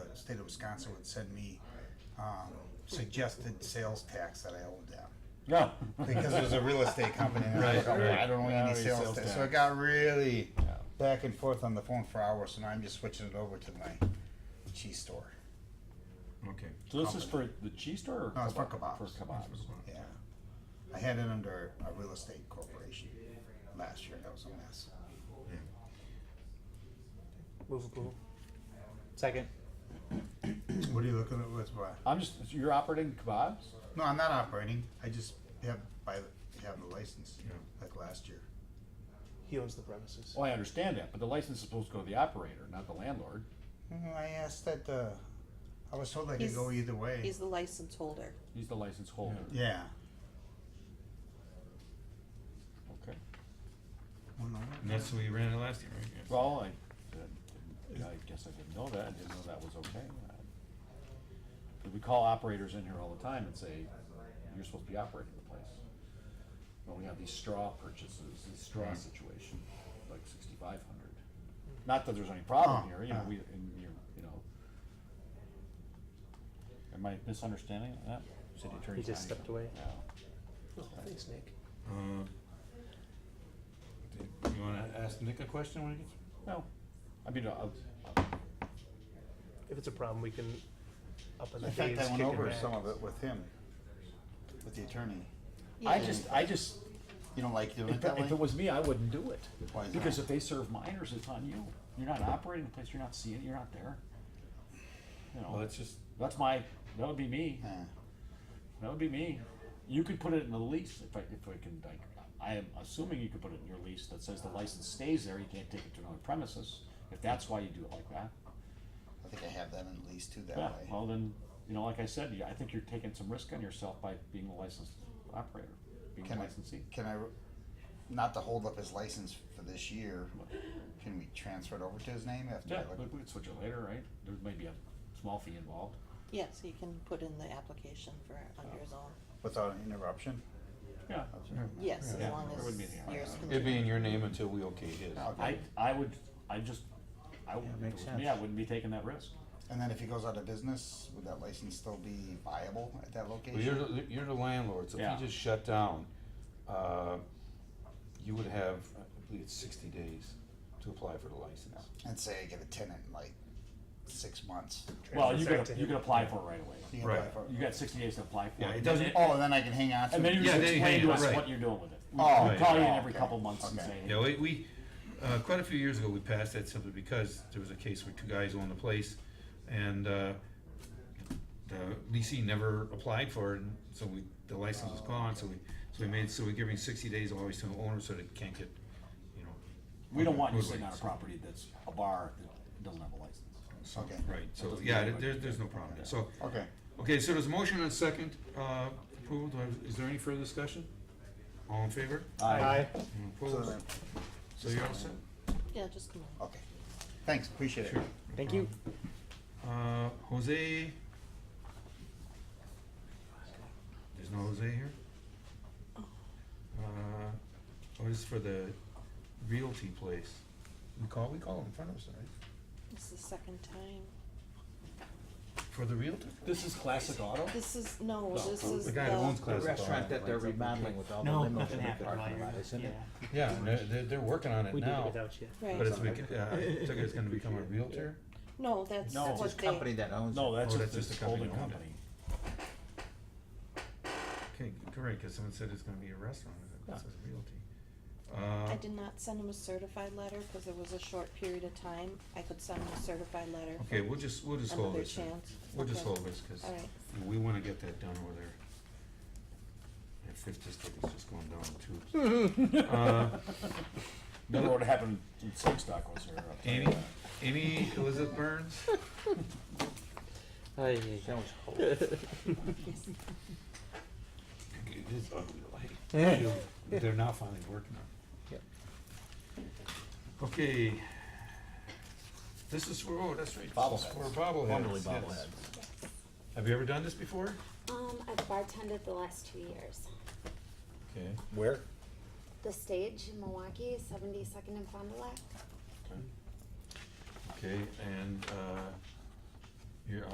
state of Wisconsin would send me, um, suggested sales tax that I owed them. No. Because it was a real estate company, and I Right, was like, "Oh, right. I don't owe Yeah, any any sales sales tax, so tax. it got really Yeah. back and forth on the phone for hours, and I'm just switching it over to my cheese store, Okay. So this is for the cheese store or? No, it's for kebab- kebabs. For kebabs. yeah. I had it under a real estate corporation last year, that was a mess. Move approval. Second. What are you looking at with, what? I'm just, you're operating kebabs? No, I'm not operating, I just have, by, have the license, Yeah. like last year. He owns the premises. Well, Oh, I understand that, but the license is supposed to go to the operator, not the landlord. Mm, I asked that, uh, I was told I could He's- go either way, He's the license holder. He's the license holder. yeah. Okay. Well, no, And that's the way you ran it last year, right? Yes. Well, I, didn't- I guess I didn't know that, I didn't know that was okay. I- We call operators in here all the time and say, you're supposed to be operating the place. When we have these straw purchases, this Hmm. straw situation, like sixty-five hundred. Not that there's any problem Oh, here, you know, yeah. we, and you, you know. Am I misunderstanding that? City attorney. He just stepped away. Yeah. Oh, thanks, Nick. Um, do you wanna ask Nick a question when he gets? No, I mean, uh, uh, If it's a problem, we can up on the In fact, days, I went kick over it back. some of it with him, with the attorney. I just, I just, You don't like doing it If, that way? if it was me, I wouldn't do it. Why is Because that? if they serve minors, it's on you. You're not operating the place, you're not seeing it, you're not there. You Well, know, that's just, that's my, that would be me, Yeah. that would be me. You could put it in the lease, if I, if I can, like, I am assuming you could put it in your lease that says the license stays there, you can't take it to another premises, if that's why you do it like that. I think I have that in lease too that Yeah, way. well then, you know, like I said, you- I think you're taking some risk on yourself by being the licensed operator, being the Can I, licensee. can I, not to hold up his license for this year, can we transfer it over to his name after? I Yeah, look- we we could switch it later, right? There may be a small fee involved. Yeah, so you can put in the application for under his own. Without an interruption? Yeah. Yes, Yeah, as long there as wouldn't be any yours can. It'd be in your name until we okay his. I, I would, I just, I Yeah, wouldn't, if it makes was me, I sense. wouldn't be taking that risk. And then if he goes out of business, would that license still be viable at that Well, you're, location? the- you're the landlord, so Yeah. if you just shut down, uh, you would have, I believe it's sixty days to apply for the license. And say I get a tenant in like six months. Well, you Transfer could, back to you him. could apply for it right away. You can apply Right. for- You got sixty days to apply for it. Yeah, it and then- doesn't- Oh, then I can hang on to it. And then you Yeah, just then you explain hang to on, us right. what you're doing with it. We Oh, we call you in right. every couple months and Okay. say, yeah, we, we, uh, quite a few years ago, we passed that simply because there was a case where two guys owned the place and, uh, the leasing never applied for it, and so we, the license was gone, so we, so we made, so we're giving sixty days always to the owner so they can't get, you know. we don't want you roadway, sitting on a so- property that's a bar that doesn't have a license. Okay, Right, so, doesn't yeah, matter. there, there's no problem there, so, okay. okay, so there's a motion and a second, uh, approval, Do I- is there any further discussion? All in favor? Aye. Anyone So uh, Opposed? then- So you're all set? Yeah, just come in. Okay. Thanks, appreciate it. Sure. Thank you. Uh, Jose? There's no Jose here? Uh, oh, this is for the realty place. We call, we call in front of us, right? This is the second time. For the realtor? This is classic auto? This is, no, No, this is The guy that owns the, The Classic restaurant Auto. that they're remodeling with all the No, limos nothing in the happened while parking you lot, isn't yeah. it? Yeah, and they're, they're, they're working on it We did it now. without you. But right. it's, bec- uh, I took it it's gonna become a realtor? No, that's No. what It's a company they, that owns it. No, that's Oh, just that's just this the company holding owned it. company. Okay, correct, cause someone said it's gonna be a restaurant, it says realty. I Uh, did not send him a certified letter because it was a short period of time. I could send him a certified letter. okay, we'll just, we'll just hold Another this. then. chance. We'll just Okay. hold this, cause All right. we wanna get that done over there. That fifth district is just going down too. Uh, Never would have happened in Stock was there. I'll tell you Amy, that. Amy Elizabeth Burns? Aye. That was horrible. It is ugly, like. Yeah. They're now finally working on it. Yep. Okay. This is for, oh, that's right. This is for Bobbleheads. bobbleheads. Formerly yes. bobbleheads. Have you ever done this before? Um, I've bartended the last two years. Okay. Where? The stage in Milwaukee, 72nd and Fond du Lac. Okay, and, uh, You're